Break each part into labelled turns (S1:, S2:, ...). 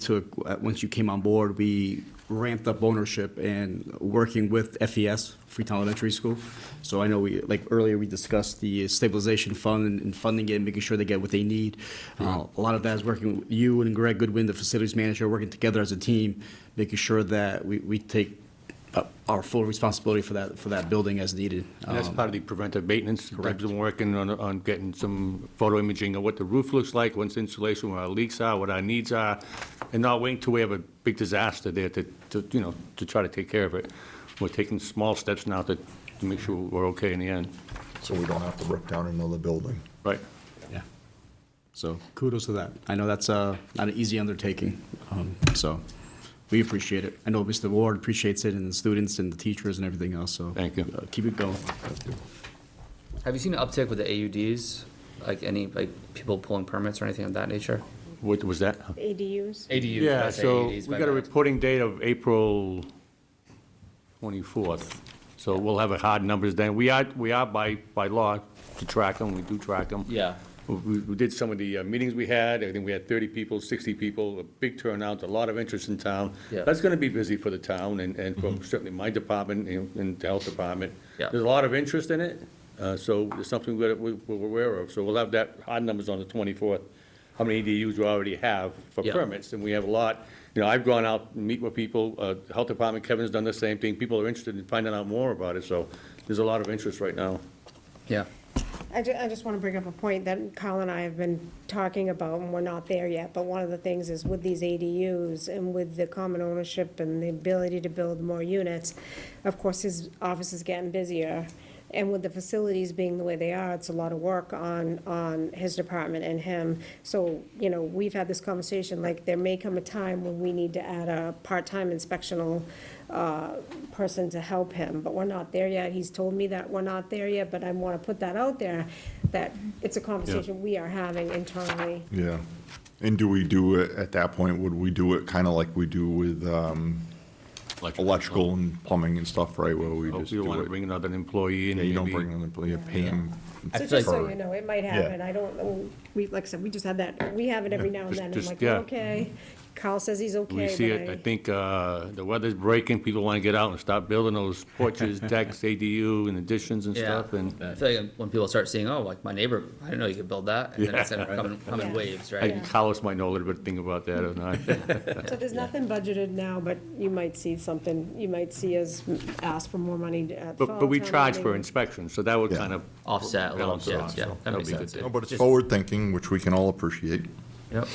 S1: took, uh, once you came on board, we ramped up ownership and working with FES, Freetown Elementary School. So I know we, like earlier, we discussed the stabilization fund and- and funding it, and making sure they get what they need. Uh, A lot of that is working with you and Greg Goodwin, the facilities manager, working together as a team, making sure that we, we take uh, our full responsibility for that, for that building as needed.
S2: And that's
S1: Um,
S2: part of the preventive maintenance,
S1: Correct.
S2: Deb's been working on, on getting some photo imaging of what the roof looks like, what's insulation, what our leaks are, what our needs are, and not waiting till we have a big disaster there to, to, you know, to try to take care of it. We're taking small steps now to, to make sure we're okay in the end,
S3: so we don't have to rip down another building.
S2: right?
S1: Yeah. So kudos to that. I know that's uh, not an easy undertaking, um, so we appreciate it. I know Mr. Ward appreciates it, and the students and the teachers and everything else, so.
S2: Thank you.
S1: uh, Keep it going.
S4: Have you seen an uptick with the AUDs? Like any, like people pulling permits or anything of that nature?
S2: What was that?
S5: ADUs.
S4: ADUs,
S2: Yeah,
S4: not
S2: so we
S4: AUDs, my
S2: got a
S4: bad.
S2: reporting date of April 24th, so we'll have a hard numbers then. We are, we are by, by law to track them, we do track them.
S4: Yeah.
S2: We- We, we did some of the uh, meetings we had, I think we had 30 people, 60 people, a big turnout, a lot of interest in town.
S4: Yeah. Mm-hmm.
S2: That's going to be busy for the town and, and for certainly my department and and the health department.
S4: Yeah.
S2: There's a lot of interest in it, uh, so it's something we're, we're aware of. So we'll have that, hard numbers on the 24th, how many EDUs we already have for
S4: Yeah.
S2: permits, and we have a lot. You know, I've gone out and meet with people, uh, the health department, Kevin's done the same thing. People are interested in finding out more about it, so there's a lot of interest right now.
S4: Yeah,
S5: I ju- I just want to bring up a point that Kyle and I have been talking about, and we're not there yet, but one of the things is with these ADUs and with the common ownership and the ability to build more units, of course, his office is getting busier, and with the facilities being the way they are, it's a lot of work on, on his department and him. So, you know, we've had this conversation, like, there may come a time when we need to add a part-time inspectional uh, person to help him, but we're not there yet. He's told me that we're not there yet, but I want to put that out there, that it's a conversation we are having internally.
S3: Yeah. And do we do it, at that point, would we do it kind of like we do with um, electrical and plumbing and stuff, right, where we
S2: Oh,
S3: just
S2: You want
S3: do
S2: to
S3: it?
S2: bring another employee in.
S3: Yeah, you don't
S2: maybe.
S3: bring them, but you pay them.
S4: I
S5: So
S4: feel
S5: just so
S3: like-
S5: you know, it might happen. I don't, we, like I said, we just had that, we have it every now and
S2: Just-
S5: then. I'm
S2: just-
S5: like,
S2: yeah.
S5: okay. Kyle says he's okay.
S2: We see
S5: but
S2: it, I think uh, the weather's breaking, people want to get out and start building those porches, decks, ADU and additions and
S4: yeah.
S2: stuff, and
S4: I feel like when people start seeing, oh, like my neighbor, I didn't know you could build that, and then it's gonna come in, come in
S5: Yeah.
S4: waves,
S2: I
S4: right?
S2: think Carlos might know a little bit thing about that or not.
S5: So there's nothing budgeted now, but you might see something, you might see us ask for more money at fall.
S2: But, but we
S5: town
S2: charge for
S5: meeting.
S2: inspection, so that would
S3: Yeah.
S2: kind of.
S4: Offset a little,
S2: balance it
S4: yeah,
S2: out,
S4: yeah,
S2: so
S4: that
S2: that'll
S4: makes
S2: be
S4: sense.
S2: good.
S3: No,
S4: yeah.
S3: But it's
S4: Just-
S3: forward-thinking, which we can all appreciate.
S4: Yep.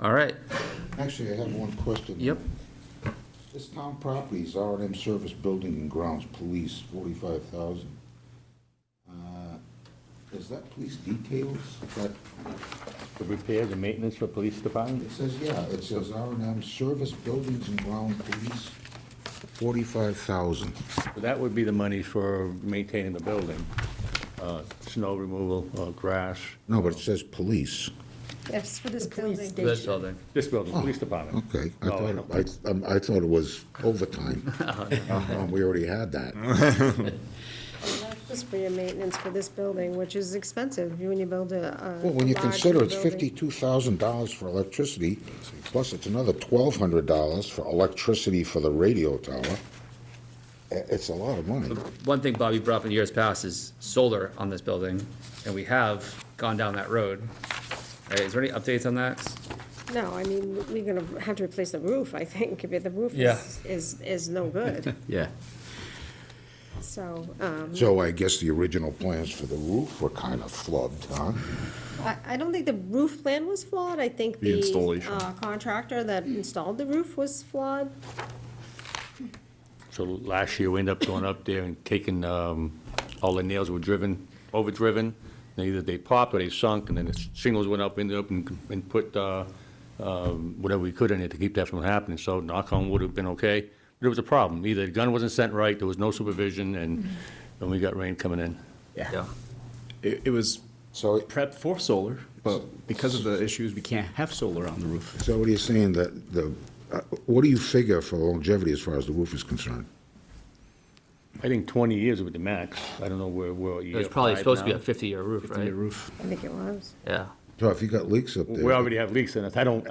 S4: All right,
S6: Actually, I have one question.
S4: yep,
S6: This town property is R and M Service Building and Grounds Police, forty-five thousand. Uh, Is that police details? Is that,
S2: The repairs and maintenance for police
S6: it
S2: department?
S6: says, yeah, it says R and M Service Buildings and Ground Police, forty-five thousand.
S2: That would be the money for maintaining the building, uh, snow removal, uh, grass,
S6: No, but it says police.
S5: That's for this building.
S4: this building,
S2: this building, police
S3: Oh,
S2: department.
S6: Okay, I
S2: No, I
S6: thought,
S2: don't-
S6: I, um, I thought it was overtime. Uh, We already had that.
S5: Just for your maintenance for this building, which is expensive when you build a. a
S6: Well, when you
S5: large
S6: consider it's
S5: building.
S6: fifty-two thousand dollars for electricity, plus it's another twelve hundred dollars for electricity for the radio tower, i- it's a lot of money.
S4: one thing Bobby brought up in years past is solar on this building, and we have gone down that road. All right, is there any updates on that?
S5: No, I mean, we're gonna have to replace the roof, I think, but the roof
S4: Yeah.
S5: is, is, is no good,
S4: Yeah.
S5: so, um,
S6: So I guess the original plans for the roof were kind of flubbed, huh?
S5: I, I don't think the roof plan was flawed, I think
S3: The
S5: the.
S3: installation.
S5: uh, Contractor that installed the roof was flawed,
S2: So last year, we ended up going up there and taking, um, all the nails were driven, overdriven. And either they popped or they sunk, and then the shingles went up, ended up and, and put, uh, um, whatever we could in it to keep that from happening. So knock on wood, have been okay. But it was a problem. Either the gun wasn't sent right, there was no supervision, and, and we got rain coming in.
S4: Yeah.
S1: It, it was
S6: So,
S1: prepped for solar, but because of the issues, we can't have solar on the roof.
S6: so what are you saying that the, uh, what do you figure for longevity as far as the roof is concerned?
S2: I think twenty years would be the max. I don't know where, where.
S4: It was probably supposed to be a fifty-year roof,
S1: The
S4: right?
S1: roof,
S5: I think it was.
S4: Yeah.
S6: So if you got leaks up there.
S2: We already have leaks in us. I don't,